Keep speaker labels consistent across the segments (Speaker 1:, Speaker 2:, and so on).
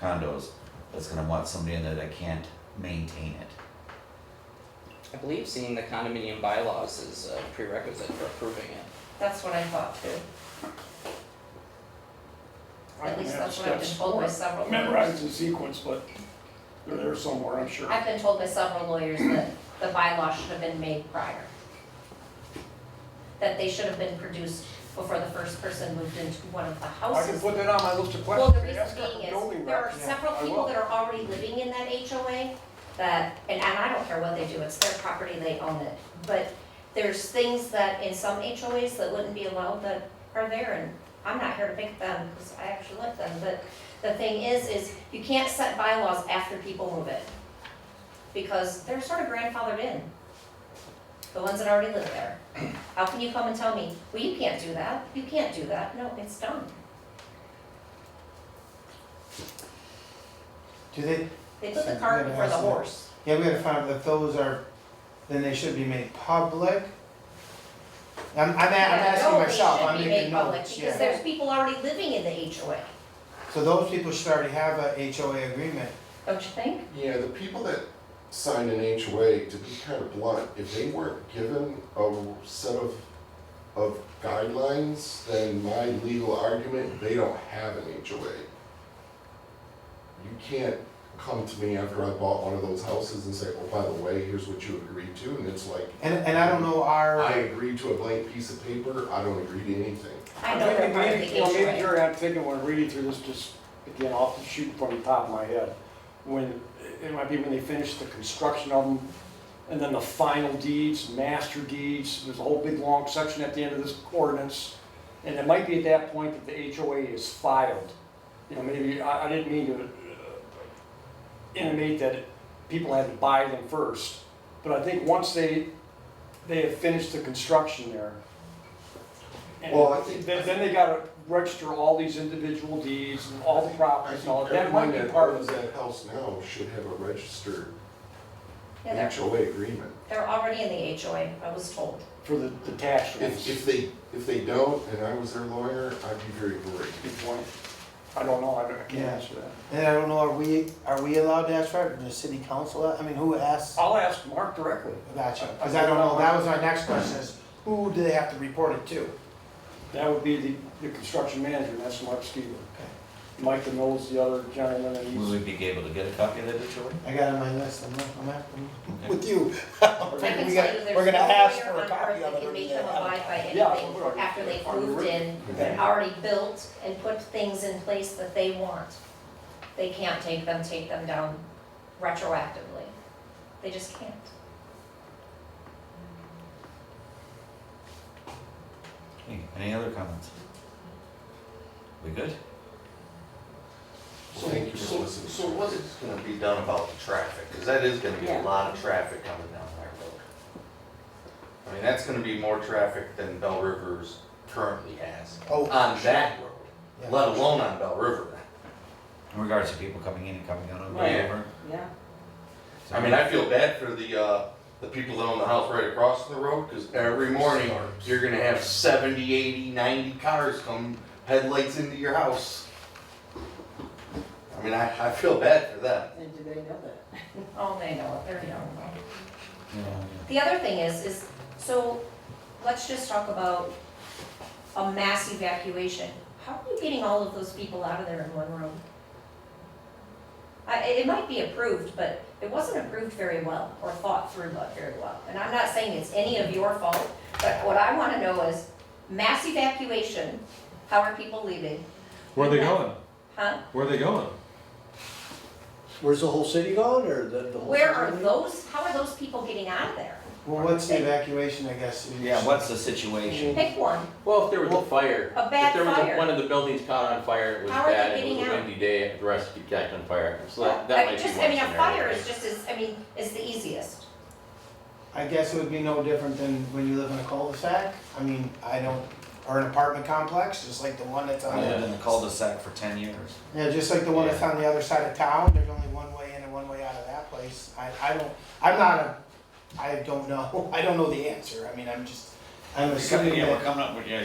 Speaker 1: condos that's gonna want somebody in there that can't maintain it.
Speaker 2: I believe seeing the condominium bylaws is a prerequisite for approving it.
Speaker 3: That's what I thought too. At least that's what I've been told by several lawyers.
Speaker 4: Memorize the sequence, but they're there somewhere, I'm sure.
Speaker 3: I've been told by several lawyers that the bylaw should have been made prior. That they should have been produced before the first person moved into one of the
Speaker 4: I can
Speaker 3: houses.
Speaker 4: put that on my list of
Speaker 3: Well,
Speaker 4: questions.
Speaker 3: the
Speaker 4: to
Speaker 3: reason
Speaker 4: ask our
Speaker 3: being
Speaker 4: building
Speaker 3: is, there are
Speaker 4: rep.
Speaker 3: several
Speaker 4: I
Speaker 3: people
Speaker 4: will.
Speaker 3: that are already living in that HOA that, and, and I don't care what they do, it's their property, they own it. But there's things that in some HOAs that wouldn't be allowed that are there, and I'm not here to pick them, because I actually like them, but the thing is, is you can't set bylaws after people move in. Because they're sort of grandfathered in, the ones that already live there. How can you come and tell me, well, you can't do that, you can't do that, no, it's done.
Speaker 5: Do they,
Speaker 3: They put the cart before the horse.
Speaker 5: yeah, we gotta find out if those are, then they should be made public. I'm, I'm, a- I'm asking myself, I'm making
Speaker 3: No, they should be made
Speaker 5: notes,
Speaker 3: public, because
Speaker 5: yeah.
Speaker 3: there's people already living in the HOA,
Speaker 5: So those people should already have a HOA agreement.
Speaker 3: don't you think?
Speaker 6: Yeah, the people that sign an HOA, to be kind of blunt, if they weren't given a set of, of guidelines, then my legal argument, they don't have an HOA. You can't come to me after I bought one of those houses and say, oh, by the way, here's what you agreed to, and it's like,
Speaker 5: And, and I don't know our.
Speaker 6: I agreed to a blank piece of paper, I don't agree to anything.
Speaker 3: I know they're
Speaker 4: Maybe-
Speaker 3: part of
Speaker 4: maybe-
Speaker 3: the
Speaker 4: you know, Maybe
Speaker 3: HOA.
Speaker 4: you're not thinking when I'm reading through this, just, again, off the shoot from the top of my head. When, it might be when they finish the construction of them, and then the final deeds, master deeds, there's a whole big long section at the end of this ordinance. And it might be at that point that the HOA is filed. You know, maybe, I, I didn't mean to uh, intimate that people had to buy them first. But I think once they, they have finished the construction there. and
Speaker 6: Well, I think-
Speaker 4: Then, then they gotta register all these individual deeds and all the
Speaker 6: I
Speaker 4: properties and all,
Speaker 6: think
Speaker 4: that. that might
Speaker 6: everyone
Speaker 4: be
Speaker 6: that
Speaker 4: part of
Speaker 6: owns
Speaker 4: it.
Speaker 6: that house now should have a registered
Speaker 3: Yeah, they're,
Speaker 6: HOA agreement.
Speaker 3: they're already in the HOA, I was told.
Speaker 4: For the detached
Speaker 6: If,
Speaker 4: ones.
Speaker 6: if they, if they don't, and I was their lawyer, I'd be very worried.
Speaker 4: Good point. I don't know, I don't- I can't
Speaker 5: Yeah.
Speaker 4: answer that.
Speaker 5: And I don't know, are we, are we allowed to ask for it, the city council, I mean, who asks?
Speaker 4: I'll ask Mark directly.
Speaker 5: Gotcha, cause I don't know, that was my next question, is who do they have to report it to?
Speaker 4: That would be the, the construction manager, and that's Mark Skeeter. Mike Denol's the other gentleman, and
Speaker 1: Will we
Speaker 4: he's,
Speaker 1: be able to get a copy of that, Joey?
Speaker 5: I got it on my list, I'm, I'm after, with you.
Speaker 3: I can tell
Speaker 5: We
Speaker 3: you
Speaker 5: got-
Speaker 3: there's
Speaker 5: We're
Speaker 3: no
Speaker 5: gonna ask for
Speaker 3: lawyer
Speaker 5: a
Speaker 3: on
Speaker 5: copy
Speaker 3: earth that
Speaker 5: of it.
Speaker 3: can
Speaker 5: or
Speaker 3: make
Speaker 5: the-
Speaker 3: them abide by
Speaker 4: Yeah, we're
Speaker 3: anything
Speaker 4: already-
Speaker 3: after they've
Speaker 4: already
Speaker 3: moved in and already built and put things in place that they want. They can't take them, take them down retroactively. They just can't.
Speaker 1: Hey, Any other comments? We good?
Speaker 6: Well, Thank you for listening.
Speaker 7: So what is gonna be done about the traffic? Because that is gonna be a lot of traffic coming down that road. I mean, that's gonna be more traffic than Bell Rivers currently has
Speaker 5: Oh,
Speaker 7: on that
Speaker 5: Yeah.
Speaker 7: road, let alone on Bell River.
Speaker 1: In regards to people coming in and coming out of the
Speaker 7: Right.
Speaker 1: river?
Speaker 2: Yeah.
Speaker 1: So-
Speaker 7: I mean, I feel bad for the, uh, the people that own the house right across the road, because every morning, you're gonna have 70, 80, 90 cars come headlights into your house. I mean, I, I feel bad for them.
Speaker 8: And do they know that?
Speaker 3: Oh, they know it, they're young.
Speaker 1: Yeah, yeah.
Speaker 3: The other thing is, is, so, let's just talk about a mass evacuation. How are you getting all of those people out of there in one room? I, it it might be approved, but it wasn't approved very well, or thought through but very well. And I'm not saying it's any of your fault, but what I wanna know is, mass evacuation, how are people leaving?
Speaker 9: Where are they going?
Speaker 3: Huh?
Speaker 9: Where are they going?
Speaker 10: Where's the whole city going, or the, the whole?
Speaker 3: Where are
Speaker 10: city?
Speaker 3: those, how are those people getting out of there?
Speaker 5: Well, what's the evacuation, I guess? you-
Speaker 1: Yeah, what's the situation?
Speaker 3: Pick one,
Speaker 11: Well, if there was a fire,
Speaker 3: a
Speaker 11: if
Speaker 3: bad
Speaker 11: there was a,
Speaker 3: fire.
Speaker 11: one of the buildings caught on fire, it was
Speaker 3: How are they
Speaker 11: bad, it
Speaker 3: getting
Speaker 11: was a
Speaker 3: out?
Speaker 11: windy day, the rest catch on fire, so that,
Speaker 3: I
Speaker 11: that
Speaker 3: mean,
Speaker 11: might be one
Speaker 3: just-
Speaker 11: scenario.
Speaker 3: I mean, a fire
Speaker 11: right?
Speaker 3: is just as, I mean, is the easiest.
Speaker 5: I guess it would be no different than when you live in a cul-de-sac, I mean, I don't, or an apartment complex, just like the one that's on
Speaker 1: I lived
Speaker 5: the.
Speaker 1: in the cul-de-sac for ten years.
Speaker 5: Yeah, just like the one that's on the other side of town, there's only one way in and one way out of that place, I, I don't, I'm not a, I don't know, I don't know the answer, I mean, I'm just, I'm assuming that.
Speaker 9: coming up with, yeah,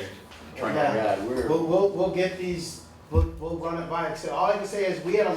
Speaker 5: Yeah, we'll, we'll, we'll get these, we'll, we'll run it by, so all I can say is, we had a